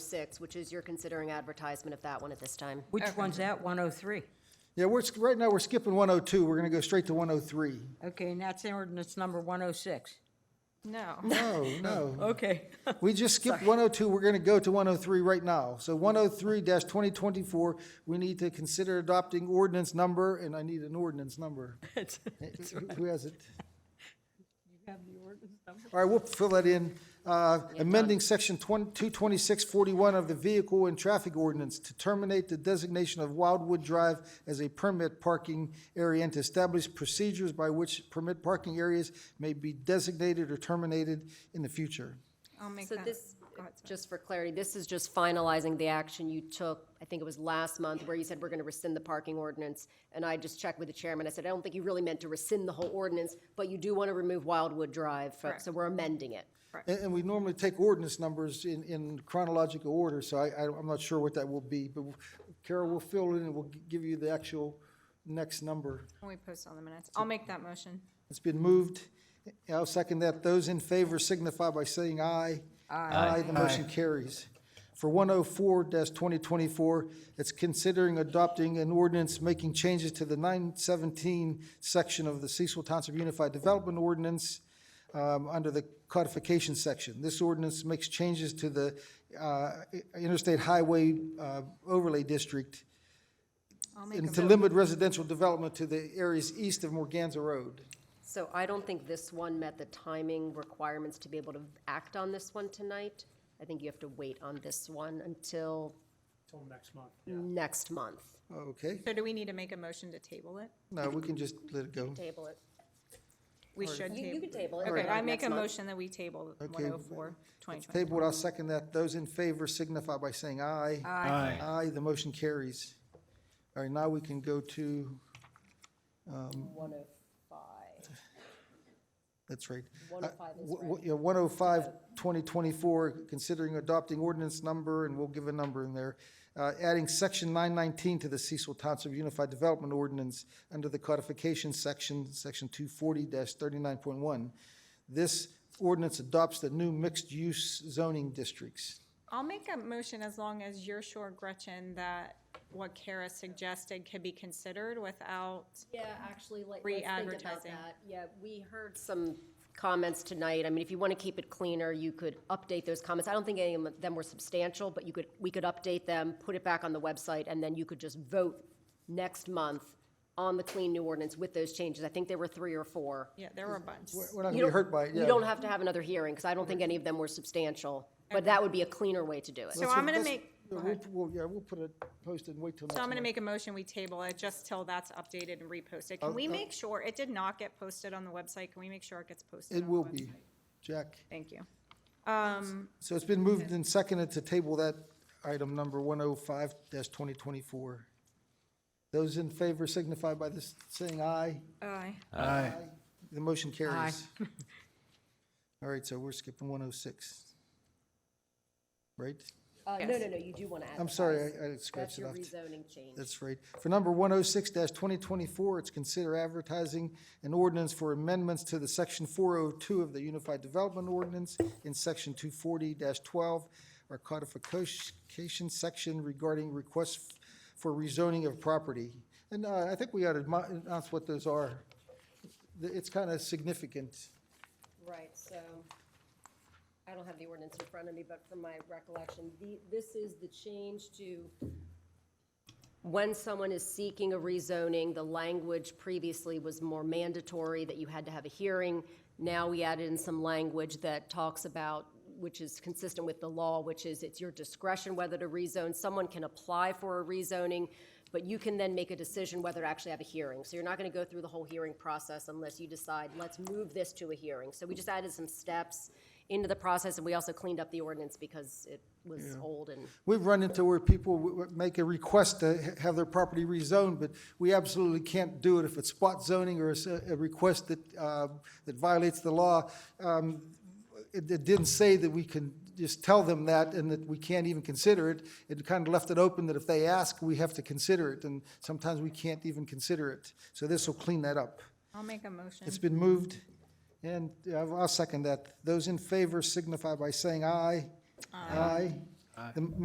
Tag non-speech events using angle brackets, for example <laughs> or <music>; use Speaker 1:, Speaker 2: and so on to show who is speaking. Speaker 1: six, which is you're considering advertisement of that one at this time.
Speaker 2: Which one's that? 103?
Speaker 3: Yeah, we're, sk- right now, we're skipping 102. We're going to go straight to 103.
Speaker 2: Okay, and that's ordinance number 106.
Speaker 4: No.
Speaker 3: No, no.
Speaker 2: Okay. <laughs>
Speaker 3: We just skipped 102. We're going to go to 103 right now. So 103-2024, we need to consider adopting ordinance number, and I need an ordinance number. Who has it? All right, we'll fill that in. Uh, Amending Section 22641 of the Vehicle and Traffic Ordinance to terminate the designation of Wildwood Drive as a permit parking area and to establish procedures by which permit parking areas may be designated or terminated in the future.
Speaker 4: I'll make
Speaker 1: So
Speaker 4: that.
Speaker 1: this,
Speaker 4: go ahead, sorry.
Speaker 1: just for clarity, this is just finalizing the action you took, I think it was last month, where you said we're going to rescind the parking ordinance. And I just checked with the chairman. I said, I don't think you really meant to rescind the whole ordinance, but you do want to remove Wildwood Drive. from- So we're amending it.
Speaker 3: And, and we normally take ordinance numbers in, in chronological order, so I, I, I'm not sure what that will be, but Carol will fill in and we'll g- give you the actual next number.
Speaker 4: Can we post on the minutes? I'll make that motion.
Speaker 3: It's been moved. I'll second that. Those in favor signify by saying aye. Aye. the motion carries. For one oh four twenty twenty-four, it's considering adopting an ordinance making changes to the nine seventeen section of the Cecil Township Unified Development Ordinance um, under the codification section. This ordinance makes changes to the uh, Interstate Highway uh, Overlay District
Speaker 4: I'll make
Speaker 3: and
Speaker 4: a
Speaker 3: to
Speaker 4: mo-
Speaker 3: limit residential development to the areas east of Morganza Road.
Speaker 1: So I don't think this one met the timing requirements to be able to act on this one tonight. I think you have to wait on this one until
Speaker 5: Till next month.
Speaker 1: next month.
Speaker 3: Okay.
Speaker 4: So do we need to make a motion to table it?
Speaker 3: No, we can just let it go.
Speaker 1: Table it.
Speaker 4: We should
Speaker 1: You, you
Speaker 4: table.
Speaker 1: can table it.
Speaker 4: Okay,
Speaker 1: Or
Speaker 4: I make
Speaker 1: next
Speaker 4: a
Speaker 1: month.
Speaker 4: motion that we table
Speaker 3: Okay.
Speaker 4: 104, 2020.
Speaker 3: Table, I'll second that. Those in favor signify by saying aye. Aye. Aye, the motion carries. All right, now we can go to, um,
Speaker 1: One oh five.
Speaker 3: that's right.
Speaker 1: 105 is
Speaker 3: right. Yeah, 105, 2024, considering adopting ordinance number, and we'll give a number in there. uh, Adding section 919 to the Cecil Township Unified Development Ordinance under the codification section, section 240-39.1. This ordinance adopts the new mixed-use zoning districts.
Speaker 4: I'll make a motion as long as you're sure, Gretchen, that what Kara suggested could be considered without,
Speaker 1: Yeah, actually, like, let's think about
Speaker 4: Re-advertising.
Speaker 1: that. Yeah, we heard some comments tonight. I mean, if you want to keep it cleaner, you could update those comments. I don't think any of them were substantial, but you could, we could update them, put it back on the website, and then you could just vote next month on the clean new ordinance with those changes. I think there were three or four.
Speaker 4: yeah, there were a bunch.
Speaker 3: We're- We're not
Speaker 1: You
Speaker 3: gonna be
Speaker 1: don't-
Speaker 3: hurt by it, yeah.
Speaker 1: You don't have to have another hearing, because I don't think any of them were substantial, but that would be a cleaner way to do it.
Speaker 4: So I'm going to
Speaker 3: Let's-
Speaker 4: make,
Speaker 3: yeah,
Speaker 4: go
Speaker 3: we'll-
Speaker 4: ahead.
Speaker 3: we'll- Yeah, we'll put a post and wait till next
Speaker 4: so I'm going to
Speaker 3: month.
Speaker 4: make a motion, we table it just till that's updated and reposted.
Speaker 3: Oh,
Speaker 4: Can we make sure, it did not get posted on the website, can we make sure it gets posted?
Speaker 3: It
Speaker 4: on the
Speaker 3: will
Speaker 4: website?
Speaker 3: be, Jack.
Speaker 4: Thank you. Um,
Speaker 3: So it's been moved and seconded to table that item number one oh five twenty twenty-four. Those in favor signify by this, saying aye.
Speaker 4: aye.
Speaker 3: Uh, The motion carries. All right, so we're skipping one oh six. Right?
Speaker 1: Uh, no, no, no, you do want to add.
Speaker 3: I'm
Speaker 1: that.
Speaker 3: sorry, I- I
Speaker 1: That's
Speaker 3: scratched it
Speaker 1: your
Speaker 3: off.
Speaker 1: rezoning change.
Speaker 3: That's right. For number one oh six twenty twenty-four, it's consider advertising an ordinance for amendments to the section four oh two of the Unified Development Ordinance in section two forty twelve, our codification section regarding requests for rezoning of property. And uh, I think we ought to mo- announce what those are. The- It's kind of significant.
Speaker 1: Right, so, I don't have the ordinance in front of me, but from my recollection, the, this is the change to when someone is seeking a rezoning, the language previously was more mandatory, that you had to have a hearing. Now we added in some language that talks about, which is consistent with the law, which is it's your discretion whether to rezone. Someone can apply for a rezoning, but you can then make a decision whether to actually have a hearing. So you're not going to go through the whole hearing process unless you decide, let's move this to a hearing. So we just added some steps into the process, and we also cleaned up the ordinance because it was old and
Speaker 3: We've run into where people w- w- make a request to ha- have their property rezoned, but we absolutely can't do it if it's spot zoning or it's a, a request that, uh, that violates the law. Um, It, it didn't say that we can just tell them that and that we can't even consider it. It kind of left it open that if they ask, we have to consider it, and sometimes we can't even consider it. So this will clean that up.
Speaker 4: I'll make a motion.
Speaker 3: It's been moved, and uh, I'll I'll second that. Those in favor signify by saying aye. Aye. The